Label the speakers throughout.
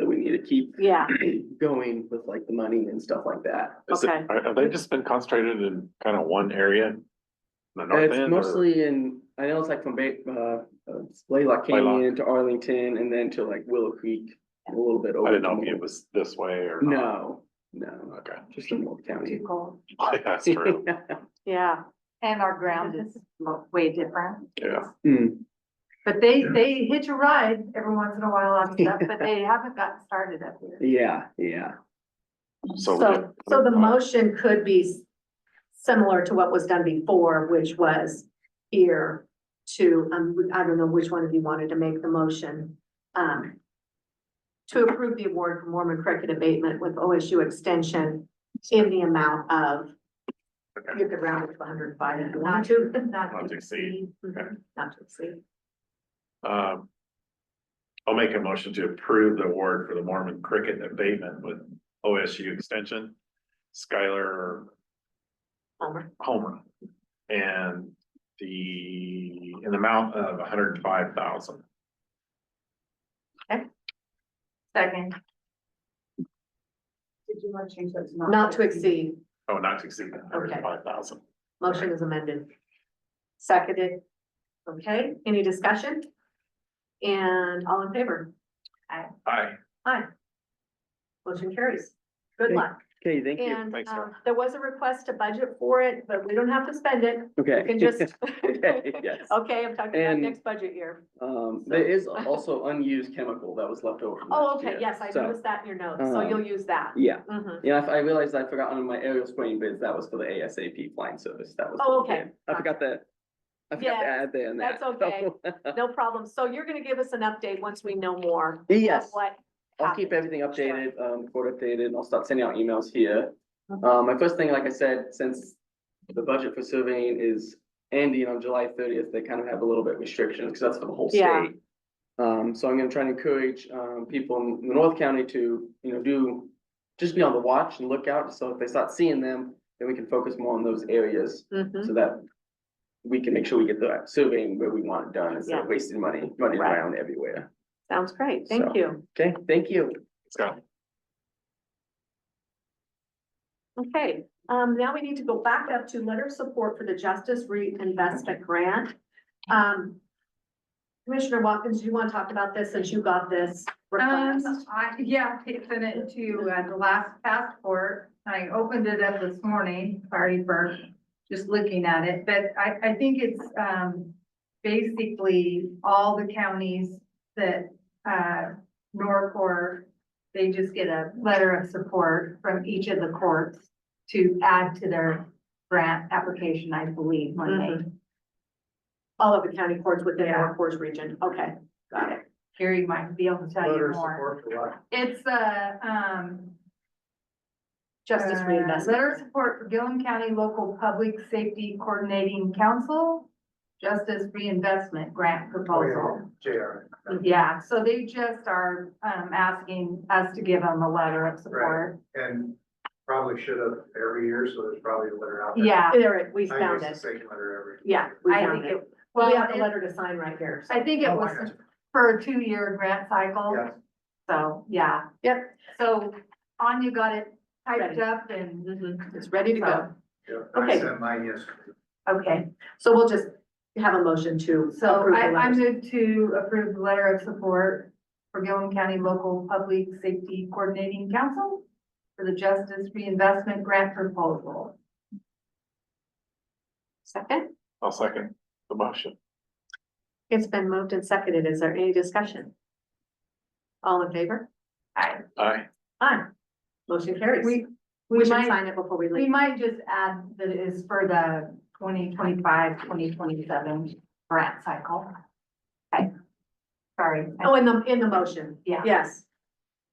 Speaker 1: to keep
Speaker 2: Yeah,
Speaker 1: going with like the money and stuff like that.
Speaker 3: Is it-
Speaker 2: Okay.
Speaker 3: Are, have they just been concentrated in kind of one area? in The
Speaker 1: And
Speaker 3: north
Speaker 1: It's
Speaker 3: end or-
Speaker 1: mostly in, I know it's like from Bay, uh, uh, Blaylock
Speaker 3: Blaylock.
Speaker 1: Canyon to Arlington and then to like Willow Creek, a little bit over.
Speaker 3: I didn't know
Speaker 1: to
Speaker 3: if it
Speaker 1: Mold.
Speaker 3: was this way or. not.
Speaker 1: No, no,
Speaker 3: Okay,
Speaker 1: just in Old County.
Speaker 2: too cold.
Speaker 3: that's true,
Speaker 2: Yeah,
Speaker 4: And our ground is mo- way different.
Speaker 3: yeah.
Speaker 1: Mm,
Speaker 4: But they, they hitch a ride every once in a while on stuff, but they haven't gotten started up here.
Speaker 1: yeah, yeah.
Speaker 3: So.
Speaker 5: So, so the motion could be s- similar to what was done before, which was here to, um, I don't know which one of you wanted to make the motion. Um, to approve the award for Mormon cricket abatement with OSU extension in the amount of, you could round it to hundred and five if you want to.
Speaker 3: Not to exceed, okay.
Speaker 5: Not to exceed.
Speaker 3: Um. I'll make a motion to approve the award for the Mormon cricket abatement with OSU extension. Skylar
Speaker 5: Homer.
Speaker 3: Homer. And the, an amount of hundred and five thousand.
Speaker 4: Second. Did you want to change that to
Speaker 5: Not to exceed.
Speaker 3: Oh, not to exceed hundred and five thousand.
Speaker 5: Motion is amended. Seconded. Okay, any discussion? And all in favor?
Speaker 3: Aye.
Speaker 5: Aye. Motion carries. Good luck.
Speaker 1: Okay, thank you.
Speaker 5: And
Speaker 3: Thanks,
Speaker 5: uh,
Speaker 3: Sarah.
Speaker 5: there was a request to budget for it, but we don't have to spend it.
Speaker 1: Okay.
Speaker 5: You can just.
Speaker 1: Okay, yes.
Speaker 5: Okay, I'm talking about
Speaker 1: And-
Speaker 5: next budget year.
Speaker 1: Um, there is also unused chemical that was left over. from
Speaker 5: Oh,
Speaker 1: last
Speaker 5: okay,
Speaker 1: year.
Speaker 5: yes, I
Speaker 1: So,
Speaker 5: noticed that in your notes, so
Speaker 1: um,
Speaker 5: you'll use that.
Speaker 1: Yeah,
Speaker 5: Mhm.
Speaker 1: yeah, I I realized I forgot on my aerial spraying bids, that was for the ASAP flying service, that was.
Speaker 5: Oh, okay.
Speaker 1: yeah, I forgot that. I forgot to
Speaker 5: Yeah,
Speaker 1: add that in that.
Speaker 5: that's okay. No problem. So you're gonna give us an update once we know more. of
Speaker 1: Yes.
Speaker 5: What?
Speaker 1: I'll keep
Speaker 5: happened.
Speaker 1: everything
Speaker 5: Sure.
Speaker 1: updated, um, report updated, and I'll start sending out emails here.
Speaker 5: Mhm.
Speaker 1: Uh, my first thing, like I said, since the budget for surveying is ending on July thirtieth, they kind of have a little bit of restrictions, because that's for the whole
Speaker 5: Yeah.
Speaker 1: state. Um, so I'm gonna try and encourage, um, people in the North County to, you know, do, just be on the watch and look out, so if they start seeing them, then we can focus more on those areas,
Speaker 5: Mhm.
Speaker 1: so that we can make sure we get the surveying where we want it done, instead of wasting money, running
Speaker 5: Right.
Speaker 1: around everywhere.
Speaker 5: Sounds great. Thank
Speaker 1: So-
Speaker 5: you.
Speaker 1: Okay, thank you.
Speaker 3: Scott,
Speaker 5: Okay, um, now we need to go back up to letter of support for the Justice Reinvestment Grant. Um, Commissioner Watkins, do you want to talk about this since you got this request?
Speaker 4: Um, I, yeah, I sent it to uh, the last passport. I opened it up this morning, sorry for just looking at it, but I, I think it's, um, basically all the counties that, uh, Norcor, they just get a letter of support from each of the courts to add to their grant application, I believe, when they,
Speaker 5: All of the county courts within
Speaker 4: Yeah.
Speaker 5: our courts region. Okay, got it.
Speaker 4: Gary might be able to tell you more. It's, uh, um,
Speaker 5: Justice
Speaker 4: Uh,
Speaker 5: Reinvestment.
Speaker 4: Letter of support for Gillum County Local Public Safety Coordinating Council, Justice Reinvestment Grant Proposal. Yeah, so they just are, um, asking us to give them a letter of support.
Speaker 6: And probably should have every year, so there's probably a letter out there.
Speaker 4: Yeah,
Speaker 5: There, it- we
Speaker 6: I use
Speaker 5: found
Speaker 6: the
Speaker 5: it.
Speaker 6: same letter every.
Speaker 5: Yeah, we
Speaker 4: I think
Speaker 5: found it.
Speaker 4: it, well,
Speaker 5: We have the
Speaker 4: it-
Speaker 5: letter to sign right here. so-
Speaker 4: I think it
Speaker 6: Oh, I
Speaker 4: was
Speaker 6: gotcha.
Speaker 4: for a two-year grant cycle,
Speaker 6: Yeah.
Speaker 4: so, yeah.
Speaker 5: Yep.
Speaker 4: So Anya got it typed
Speaker 5: Ready.
Speaker 4: up and,
Speaker 5: Mhm, It's ready to go.
Speaker 6: Yeah, I
Speaker 5: Okay.
Speaker 6: sent mine yesterday.
Speaker 5: Okay, so we'll just have a motion to
Speaker 4: So
Speaker 5: approve the
Speaker 4: I, I
Speaker 5: letters.
Speaker 4: move to approve the letter of support for Gillum County Local Public Safety Coordinating Council for the Justice Reinvestment Grant Proposal.
Speaker 5: Second?
Speaker 3: I'll second the motion.
Speaker 5: It's been moved and seconded. Is there any discussion? All in favor?
Speaker 3: Aye.
Speaker 5: Aye. Motion carries.
Speaker 4: We,
Speaker 5: We
Speaker 4: we
Speaker 5: should
Speaker 4: might,
Speaker 5: sign it before we
Speaker 4: we
Speaker 5: leave.
Speaker 4: might just add that it is for the 2025-2027 grant cycle. Okay. Sorry. I-
Speaker 5: Oh, in the, in the motion.
Speaker 4: Yeah.
Speaker 5: Yes.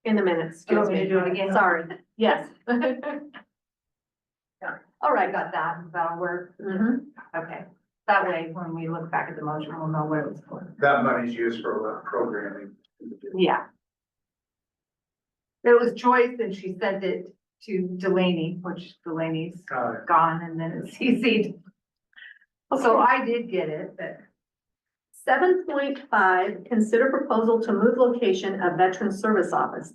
Speaker 5: In the minutes.
Speaker 4: You
Speaker 5: Excuse
Speaker 4: want me
Speaker 5: me.
Speaker 4: to do it again?
Speaker 5: Sorry. Yes. All
Speaker 4: Oh, I
Speaker 5: right.
Speaker 4: got that, that'll work.
Speaker 5: Mhm.
Speaker 4: Okay. That way, when we look back at the motion, we'll know what it was for.
Speaker 6: That money's used for uh, programming.
Speaker 4: Yeah. It was Joyce and she sent it to Delaney, which Delaney's
Speaker 6: Uh,
Speaker 4: gone and then it's CC'd. So I did get it, but
Speaker 5: Seven point five, consider proposal to move location of Veteran Service Office.